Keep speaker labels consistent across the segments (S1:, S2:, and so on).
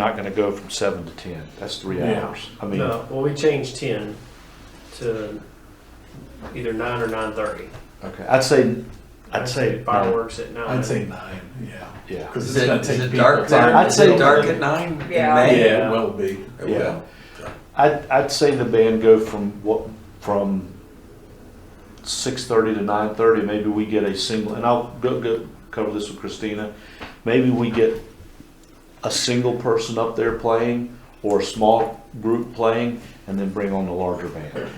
S1: not gonna go from seven to ten. That's three
S2: Yeah.
S1: hours. I mean,
S2: No, well, we changed ten to either nine or nine thirty.
S1: okay, I'd say, I'd say, no,
S2: Fireworks at nine.
S3: I'd say nine, yeah.
S1: yeah.
S3: Because
S4: Is
S3: it's
S4: it,
S3: gonna
S4: is
S3: take
S4: it
S3: people.
S4: dark?
S3: time.
S4: at-
S1: I'd
S4: is
S1: say-
S4: it dark at nine? in
S5: Yeah.
S4: May?
S3: Yeah, it will be.
S4: It
S1: Yeah.
S4: will.
S1: I'd, I'd say the band go from what, from six thirty to nine thirty, maybe we get a single, and I'll go, go cover this with Christina. Maybe we get a single person up there playing or a small group playing and then bring on the larger band.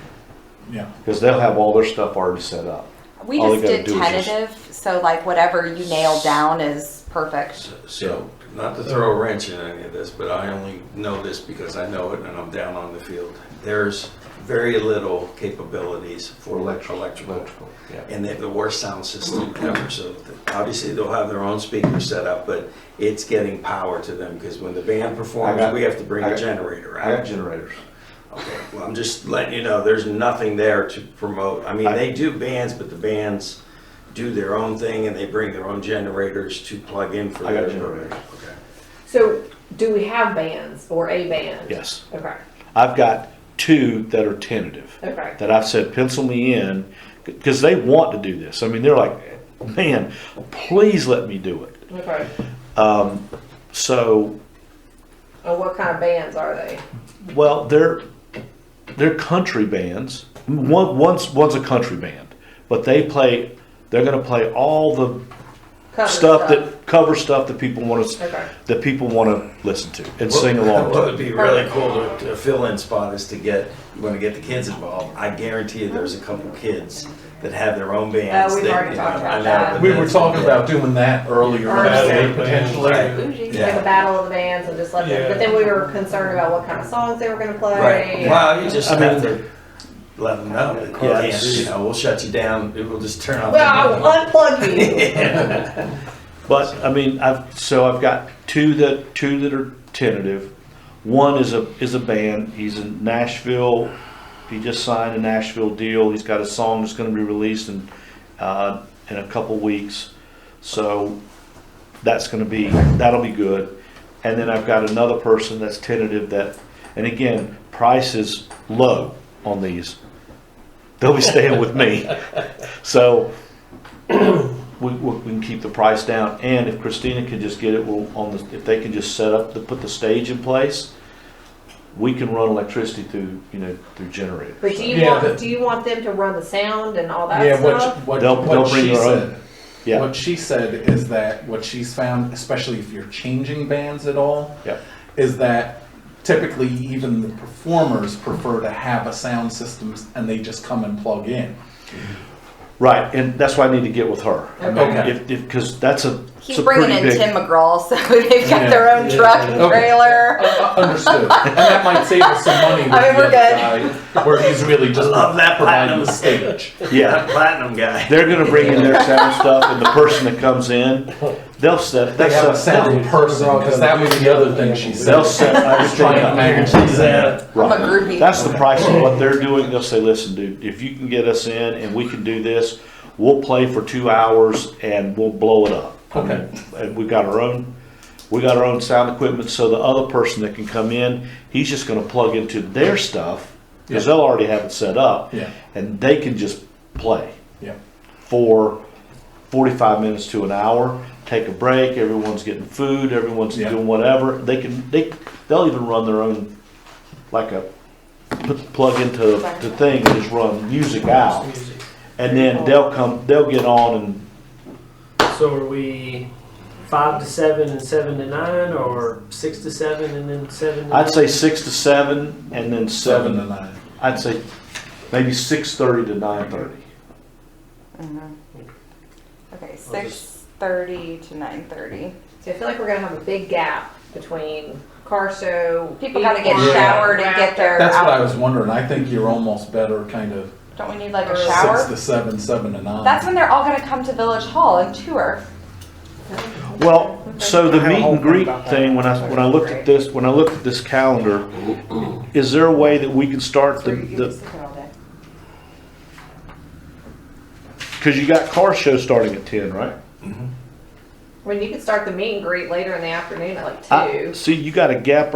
S3: Yeah.
S1: Cause they'll have all their stuff already set up.
S5: We
S1: All
S5: just
S1: they gotta
S5: did
S1: do is just-
S5: tentative, so like whatever you nail down is perfect.
S4: So- So, not to throw a wrench in any of this, but I only know this because I know it and I'm down on the field. There's very little capabilities for electrical.
S1: Yeah.
S4: And they have the worst sound system ever, so obviously they'll have their own speakers set up, but it's getting power to them because when the band performs,
S1: got-
S4: we have to bring
S1: I
S4: a
S1: got-
S4: generator
S1: I got
S4: out.
S1: generators.
S4: Okay, well, I'm just letting you know, there's nothing there to promote. I mean,
S1: I-
S4: they do bands, but the bands do their own thing and they bring their own generators to plug in for
S1: I got
S4: their.
S1: generators.
S4: Okay.
S6: So, do we have bands or a band?
S1: Yes.
S6: Okay,
S1: I've got two that are tentative.
S6: okay.
S1: that I've said pencil me in because they want to do this. I mean, they're like, man, please let me do it.
S6: Okay.
S1: Um, so,
S6: And what kind of bands are they?
S1: well, they're they're country bands. One one's one's a country band, but they play. They're going to play all the
S6: Cover
S1: stuff, that cover stuff that people want to
S6: Okay.
S1: that people want to listen to and sing along
S4: What
S1: to.
S4: would be
S6: Oh.
S4: really cool to, to fill in spot is to get, you wanna get the kids involved. I guarantee you there's a couple kids that have their own bands.
S6: Oh, we've
S4: that-
S6: already talked about
S4: I know,
S6: that.
S4: but
S3: We were
S4: that's-
S3: talking about doing that earlier,
S6: Earlier.
S3: that day,
S2: Right.
S3: potentially.
S6: Bougie. Like
S4: Yeah.
S6: a battle of the bands and just let them. But then we were concerned about what kind of songs they were going to play.
S4: Right, wow, you just
S1: I mean-
S4: have to let them know. that you
S1: Yeah.
S4: can't, You know, we'll shut you down, we'll just turn off.
S6: Well, uh, I will unplug you.
S1: But I mean, I've so I've got two that two that are tentative. One is a is a band. He's in Nashville. He just signed a Nashville deal. He's got a song that's going to be released in uh, in a couple weeks. So that's going to be that'll be good. And then I've got another person that's tentative that, and again, price is low on these. They'll be staying with me. So we, we we can keep the price down, and if Christina can just get it, we'll, on the, if they can just set up, to put the stage in place, we can run electricity through, you know, through generators.
S6: But do you
S3: Yeah,
S6: want
S3: that-
S6: do you want them to run the sound and all that
S3: Yeah,
S6: stuff?
S3: what, what,
S1: They'll-
S3: what
S1: they'll bring
S3: she
S1: their own.
S3: said.
S1: Yeah.
S3: What she said is that what she's found, especially if you're changing bands at all,
S1: Yep.
S3: is that typically even the performers prefer to have a sound system and they just come and plug in.
S1: Right, and that's why I need to get with her.
S3: Okay.
S1: If, if, cause that's a, it's
S5: He's
S1: a
S5: bringing
S1: pretty big.
S5: in Tim McGraw, so they've got their own
S2: Yeah.
S5: truck and
S3: Okay.
S5: trailer.
S3: Uh, uh, understood. and that might save us some money with
S5: I mean,
S3: the
S5: we're
S3: other guy, where he's really just
S4: Love that
S3: providing the
S4: platinum.
S3: stage.
S1: Yeah,
S4: That platinum guy.
S1: they're gonna bring in their sound stuff, and the person that comes in, they'll set,
S3: They
S1: that's
S3: have a
S1: a,
S3: sound person, because that was the other thing she said.
S1: they'll set, I
S3: I was trying to manage that.
S5: I'm a
S1: Right.
S5: groupie.
S1: That's the price of what they're doing. They'll say, listen, dude, if you can get us in and we can do this, we'll play for two hours and we'll blow it up.
S3: Okay.
S1: And we've got our own, we got our own sound equipment, so the other person that can come in, he's just gonna plug into their stuff, cause
S3: Yeah.
S1: they'll already have it set up.
S3: Yeah.
S1: And they can just play
S3: Yeah.
S1: for forty-five minutes to an hour, take a break, everyone's getting food, everyone's
S3: Yeah.
S1: doing whatever. They can, they, they'll even run their own, like a, put- plug into the thing and just run music out.
S2: Music.
S1: And then they'll come, they'll get on and
S2: So are we five to seven and seven to nine, or six to seven and then seven? To
S1: I'd say
S2: nine?
S1: six to seven and then
S3: Seven to
S1: seven,
S3: nine.
S1: I'd say maybe six thirty to nine thirty.
S5: Mhm. Okay,
S2: I'll
S5: six thirty to nine thirty.
S6: So I feel like we're gonna have a big gap between car show.
S5: People gotta get
S6: unicorn,
S5: showered and get their
S3: That's what I
S5: out.
S3: was wondering. I think you're almost better kind of
S5: Don't we need like a
S6: Six
S3: six
S5: shower?
S3: to seven, seven to nine.
S5: That's when they're all gonna come to Village Hall and tour.
S1: Well, so the
S7: I had a
S1: meet
S7: whole
S1: and greet
S7: thing about that.
S1: thing, when I, when I looked at this, when I looked at this calendar, is there a way that we can start the,
S5: So you can
S1: the,
S5: sit there all day.
S1: cause you got car show starting at ten, right?
S6: I mean, you could start the meet and greet later in the afternoon at like
S1: I-
S6: two.
S1: See, you got a gap